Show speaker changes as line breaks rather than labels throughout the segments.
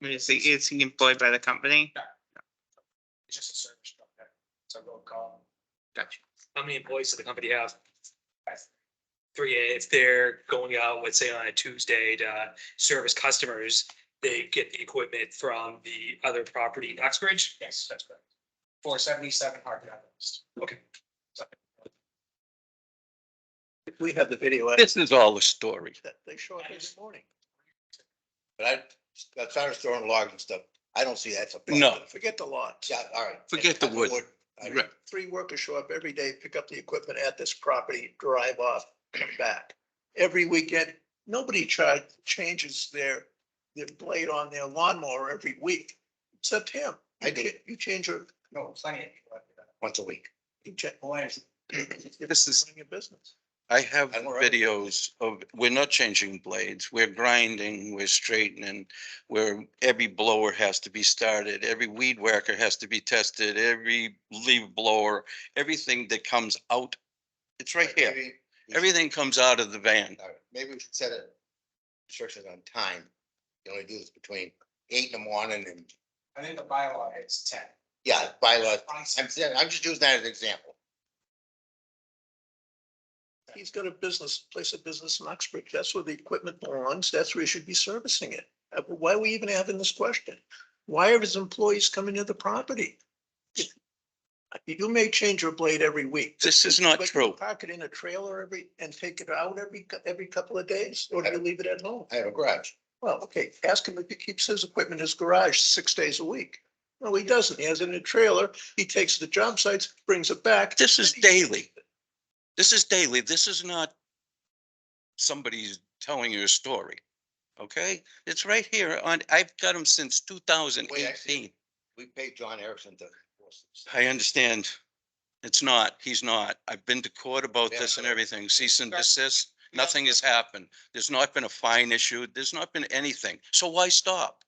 Is he, is he employed by the company?
It's just a service truck that, it's a roll call.
Gotcha.
How many employees does the company have? Three, if they're going out, let's say on a Tuesday to service customers, they get the equipment from the other property in Uxbridge?
Yes, that's correct. Four seventy-seven Harvard Avenue.
We have the video.
This is all a story.
They show up every morning.
But I, I started throwing logs and stuff. I don't see that's a. problem.
No.
Forget the lots.
Yeah, all right.
Forget the wood.
I-
Right.
Three workers show up every day, pick up the equipment at this property, drive off, come back. Every weekend, nobody charge, changes their, their blade on their lawnmower every week, except him.
I do.
You change your,
No, plenty of people. have that.
Once a week.
you check,
Boy,
this is
This is-
running your business.
I have
I'm all right.
videos of, we're not changing blades, we're grinding, we're straightening. Where every blower has to be started, every weed whacker has to be tested, every leaf blower, everything that comes out. It's right here.
Maybe-
Everything comes out of the van.
all right, Maybe we should set a restrictions on time. You only do this between eight in the morning and,
I think the bylaw is ten.
yeah, bylaws.
On
I'm, saying- I'm just using that as an example.
He's got a business, place of business in Oxbridge. That's where the equipment belongs. That's where he should be servicing it. Uh, Why are we even having this question? Why are his employees coming to the property? You may change your blade every week.
This is not
but
true.
Park it in a trailer every, and take it out every, cou- every couple of days, or do you leave it at home?
I have a garage.
Well, okay, ask him if he keeps his equipment in his garage six days a week. No, he doesn't. He has it in a trailer. He takes it to job sites, brings it back.
This is daily. This is daily. This is not somebody's telling you a story. Okay? It's right here on, I've got them since two thousand eighteen.
We paid John Erickson to.
I understand. It's not, he's not. I've been to court about this and
Yeah.
everything, cease and
Sure.
desist. Nothing has happened. There's not been a fine issued. There's not been anything. So why stop?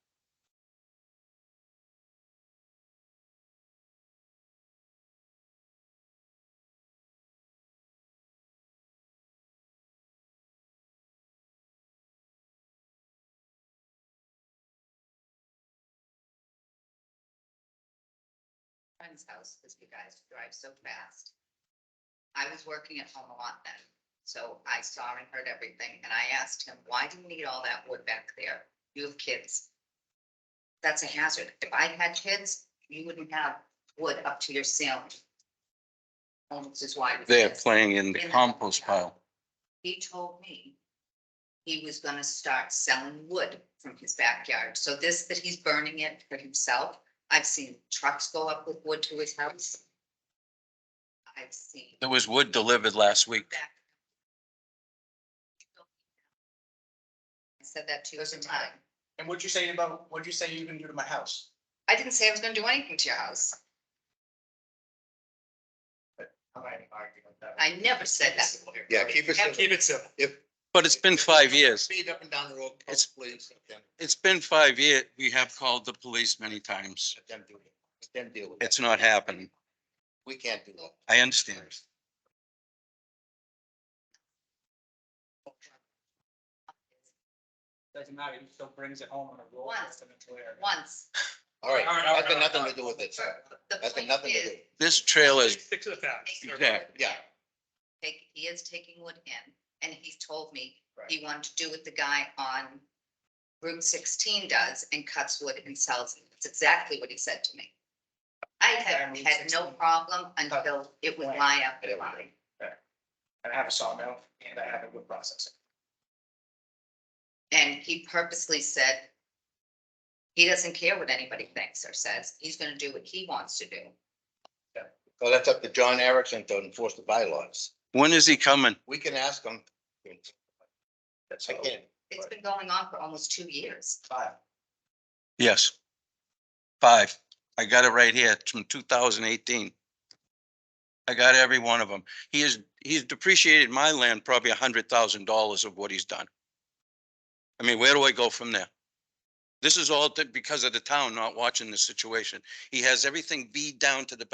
friend's house because you guys drive so fast. I was working at home a lot then, so I saw and heard everything, and I asked him, why do you need all that wood back there? You have kids. That's a hazard. If I had kids, you wouldn't have wood up to your ceiling. And Which is why. we
They're
just-
playing in the compost pile.
uh, he told me he was gonna start selling wood from his backyard. So this, that he's burning it for himself. I've seen trucks go up with wood to his house. I've seen
There was wood delivered last week.
back. I said that to you at the time.
And what'd you say about, what'd you say you can do to my house?
I didn't say I was gonna do anything to your house.
I'm not even arguing with that.
I never said that.
Yeah, keep it simple.
Keep it simple.
If.
But it's been five years.
Speed up and down the road.
It's-
Please, let them-
It's been five years. We have called the police many times.
let them do it. Let them deal with it.
It's not happening.
We can't do that.
I understand.
Doesn't matter, he still brings it home on a roll.
Once.
and it's where-
Once.
All right,
All right, all right,
that's got
all right,
nothing
all
to do with it.
The
That's got
point
nothing to
is,
do.
This trailer is,
Stick to the facts.
Exactly.
Yeah.
take, he is taking wood in, and he told me
Right.
he wanted to do what the guy on room sixteen does and cuts wood and sells it. That's exactly what he said to me. I
Yeah,
had,
Room
had no
16.
problem until it was my up and running.
And I have a sawmill and I have a wood processor.
And he purposely said he doesn't care what anybody thinks or says. He's gonna do what he wants to do.
So that's up to John Erickson to enforce the bylaws.
when is he coming?
We can ask him. I
That's how-
can't.
It's been going on for almost two years.
Five.
Yes. Five. I got it right here It's from two thousand eighteen. I got every one of them. He is, he's depreciated my land probably a hundred thousand dollars of what he's done. I mean, where do I go from there? This is all that- because of the town not watching this situation. He has everything beat down to the